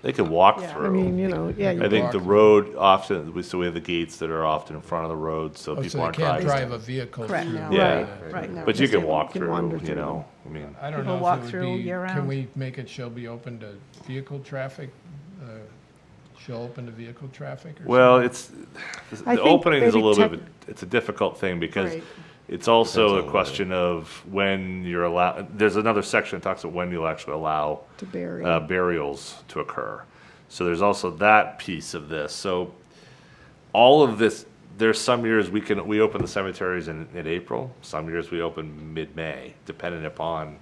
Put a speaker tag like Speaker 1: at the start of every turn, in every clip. Speaker 1: They could walk
Speaker 2: Yeah,
Speaker 1: through.
Speaker 2: I mean, you know, yeah. you
Speaker 1: I think
Speaker 2: walk.
Speaker 1: the road often, we- so we have the gates that are often in front of the road, so
Speaker 3: Oh,
Speaker 1: people
Speaker 3: so you
Speaker 1: aren't
Speaker 3: can't drive
Speaker 1: driving.
Speaker 3: a vehicle
Speaker 2: Correct,
Speaker 3: through.
Speaker 2: no,
Speaker 1: Yeah.
Speaker 2: right, right. no,
Speaker 1: But you
Speaker 2: just
Speaker 1: can
Speaker 2: they
Speaker 1: walk
Speaker 2: wander
Speaker 1: through,
Speaker 2: through.
Speaker 1: you know, I mean,
Speaker 3: I don't
Speaker 2: People
Speaker 3: know
Speaker 2: walk
Speaker 3: if it would
Speaker 2: through
Speaker 3: be, can
Speaker 2: year-round.
Speaker 3: we make it, shall be open to vehicle traffic? Uh, Shall open to vehicle traffic or something?
Speaker 1: well, it's,
Speaker 2: I
Speaker 1: the
Speaker 2: think
Speaker 1: opening is a
Speaker 2: maybe
Speaker 1: little bit, of
Speaker 2: tech-
Speaker 1: a- it's a difficult thing because
Speaker 2: Right.
Speaker 1: it's also
Speaker 4: Depends
Speaker 1: a
Speaker 4: on
Speaker 1: question of when you're allowed, there's another section that talks about when you'll actually allow
Speaker 2: To bury.
Speaker 1: uh, burials to occur. So there's also that piece of this. So all of this, there's some years we can, we open the cemeteries in, in April. Some years we open mid-May, depending upon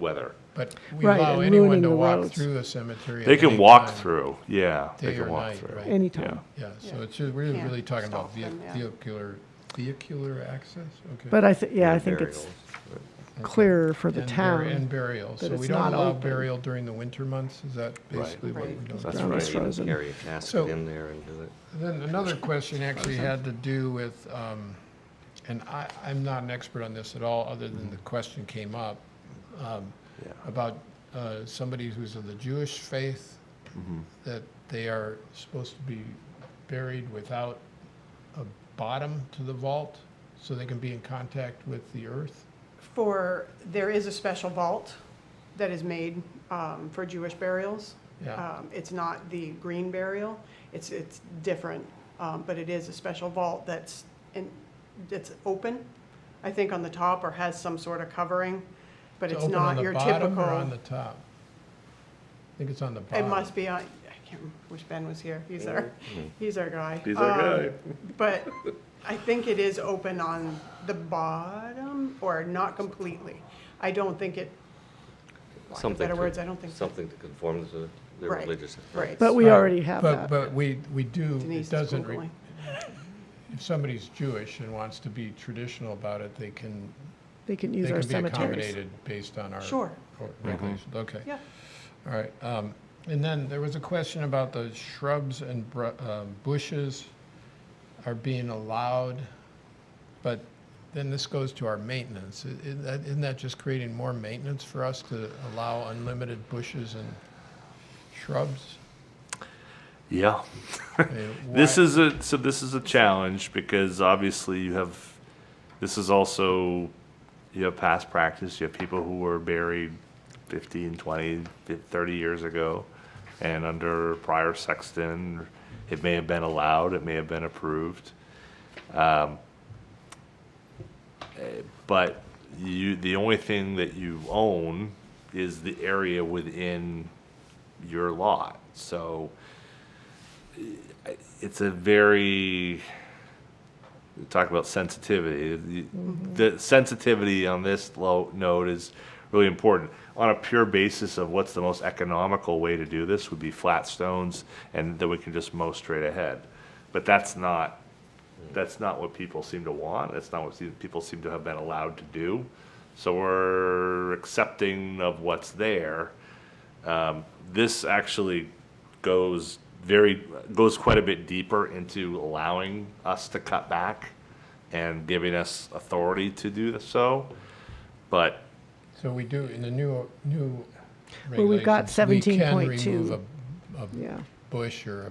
Speaker 1: weather.
Speaker 3: But we
Speaker 2: Right,
Speaker 3: allow
Speaker 2: and
Speaker 3: anyone
Speaker 2: ruining
Speaker 3: to
Speaker 2: the
Speaker 3: walk
Speaker 2: roads.
Speaker 3: through the cemetery. at
Speaker 1: They can
Speaker 3: any
Speaker 1: walk
Speaker 3: time.
Speaker 1: through, yeah. They
Speaker 3: Day
Speaker 1: can
Speaker 3: or
Speaker 1: walk
Speaker 3: night,
Speaker 1: through.
Speaker 3: right.
Speaker 2: Anytime.
Speaker 3: Yeah, so it's just, we're
Speaker 2: Yeah.
Speaker 3: really talking about
Speaker 2: Stop them,
Speaker 3: vehi-
Speaker 2: yeah.
Speaker 3: vehicular, vehicular access, okay?
Speaker 2: But I think, yeah, I think it's clearer for the
Speaker 3: And bur- And
Speaker 2: town.
Speaker 3: burial, so
Speaker 2: it's
Speaker 3: we don't
Speaker 2: not
Speaker 3: allow
Speaker 2: open.
Speaker 3: burial during the winter months, is that basically what we're
Speaker 2: Right.
Speaker 3: doing?
Speaker 1: That's
Speaker 2: Ground is
Speaker 1: right.
Speaker 2: frozen.
Speaker 4: Carry a
Speaker 3: So-
Speaker 4: casket in there and do it.
Speaker 3: Then another question actually had to do with, um, and I, I'm not an expert on this at all, other than the question came up, um,
Speaker 1: Yeah.
Speaker 3: about uh, somebody who's of the Jewish faith, that they are supposed to be buried without a bottom to the vault, so they can be in contact with the earth?
Speaker 5: For, there is a special vault that is made um, for Jewish burials.
Speaker 3: Yeah.
Speaker 5: Um, It's not the green burial, it's, it's different, um, but it is a special vault that's, in that's open, I think on the top, or has some sort of covering, but
Speaker 3: To
Speaker 5: it's
Speaker 3: open on
Speaker 5: not
Speaker 3: the
Speaker 5: your
Speaker 3: bottom or on the
Speaker 5: typical.
Speaker 3: top? I think it's on the bottom.
Speaker 5: It must be on, I can't, wish Ben was here, he's our, he's our guy.
Speaker 1: Mm-hmm. He's our
Speaker 5: Um,
Speaker 1: guy.
Speaker 5: But I think it is open on the bottom, or not completely. I don't think it lack of
Speaker 4: Something
Speaker 5: better
Speaker 4: to-
Speaker 5: words, I don't think so.
Speaker 4: Something to conform to their
Speaker 5: Right,
Speaker 4: religious.
Speaker 5: right.
Speaker 2: But we
Speaker 3: Right.
Speaker 2: already have
Speaker 3: But,
Speaker 2: that.
Speaker 3: but we, we do,
Speaker 5: Denise
Speaker 3: it
Speaker 5: is
Speaker 3: doesn't, re-
Speaker 5: Googling.
Speaker 3: if somebody's Jewish and wants to be traditional about it, they can,
Speaker 2: They can
Speaker 3: they
Speaker 2: use our
Speaker 3: can be
Speaker 2: cemeteries.
Speaker 3: accommodated based on our.
Speaker 5: Sure.
Speaker 3: or-
Speaker 1: Mm-hmm.
Speaker 3: Regulations, okay.
Speaker 5: Yeah.
Speaker 2: Mm-hmm.
Speaker 3: All right. um, And then there was a question about the shrubs and br- um, bushes are being allowed, but then this goes to our maintenance. I- Isn't that- isn't that just creating more maintenance for us to allow unlimited bushes and shrubs?
Speaker 1: Yeah.
Speaker 3: I mean,
Speaker 1: This
Speaker 3: why-
Speaker 1: is a, so this is a challenge because obviously you have, this is also, you have past practice. You have people who were buried 15, 20, 30 years ago. And under prior sexton, it may have been allowed, it may have been approved. Um, eh, but you the only thing that you own is the area within your lot so eh, it's a very talk about sensitivity You- the sensitivity on this low note is really important on a pure basis of what's the most economical way to do this would be flat stones and then we can just mow straight ahead but that's not that's not what people seem to want. That's not what se- people seem to have been allowed to do. So we're accepting of what's there. Um, this actually goes very goes quite a bit deeper into allowing us to cut back and giving us authority to do th- so. But
Speaker 3: So we do, in the new, new
Speaker 2: Well, we've got
Speaker 3: regulations, we can
Speaker 2: 17.2.
Speaker 3: remove a- a
Speaker 2: Yeah.
Speaker 3: bush or a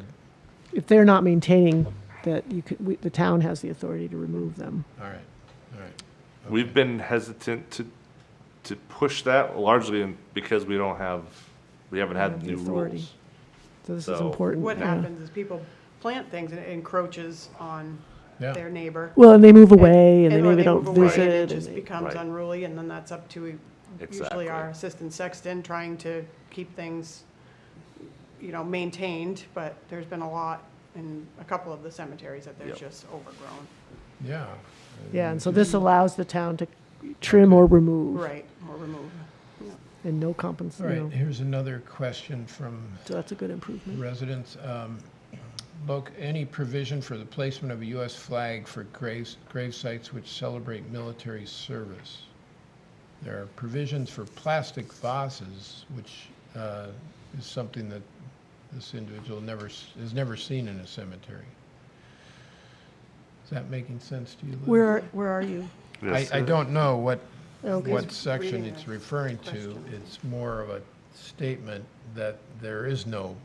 Speaker 2: If they're not maintaining that you could, we- the town has the authority to remove them.
Speaker 3: All right, all right.
Speaker 1: We've been hesitant to, to push that largely in- because we don't have, we haven't
Speaker 2: have
Speaker 1: had
Speaker 2: the
Speaker 1: new
Speaker 2: authority.
Speaker 1: rules.
Speaker 2: So this is
Speaker 1: So-
Speaker 2: important.
Speaker 5: What
Speaker 2: yeah.
Speaker 5: happens is people plant things and it encroaches on
Speaker 3: Yeah.
Speaker 5: their neighbor.
Speaker 2: Well, and they move
Speaker 5: And-
Speaker 2: away and they
Speaker 5: or
Speaker 2: maybe don't
Speaker 5: move away and
Speaker 2: visit.
Speaker 5: It
Speaker 2: and
Speaker 5: just
Speaker 2: they-
Speaker 5: becomes
Speaker 1: Right.
Speaker 5: unruly and then that's up to
Speaker 1: Exactly.
Speaker 5: usually our assistant sexton trying to keep things, you know, maintained, but there's been a lot in a couple of the cemeteries that they're
Speaker 1: Yep.
Speaker 5: just overgrown.
Speaker 3: Yeah,
Speaker 2: Yeah, and so
Speaker 3: Mm-hmm.
Speaker 2: this allows the town to trim or remove
Speaker 5: Right, or remove.
Speaker 2: and no compens,
Speaker 3: all
Speaker 2: you know.
Speaker 3: right, here's another question from
Speaker 2: So that's a good improvement.
Speaker 3: residents. Um, Look, any provision for the placement of a US flag for graves, grave sites which celebrate military service? There are provisions for plastic vases, which uh, is something that this individual never, s- has never seen in a cemetery. Is that making sense to you, Liz?
Speaker 2: Where, are- where are you?
Speaker 3: I,
Speaker 1: Yes.
Speaker 3: I don't know what,
Speaker 2: Okay.
Speaker 3: what section
Speaker 5: reading
Speaker 3: it's
Speaker 5: the
Speaker 3: referring to.
Speaker 5: question.
Speaker 3: It's more of a statement that there is no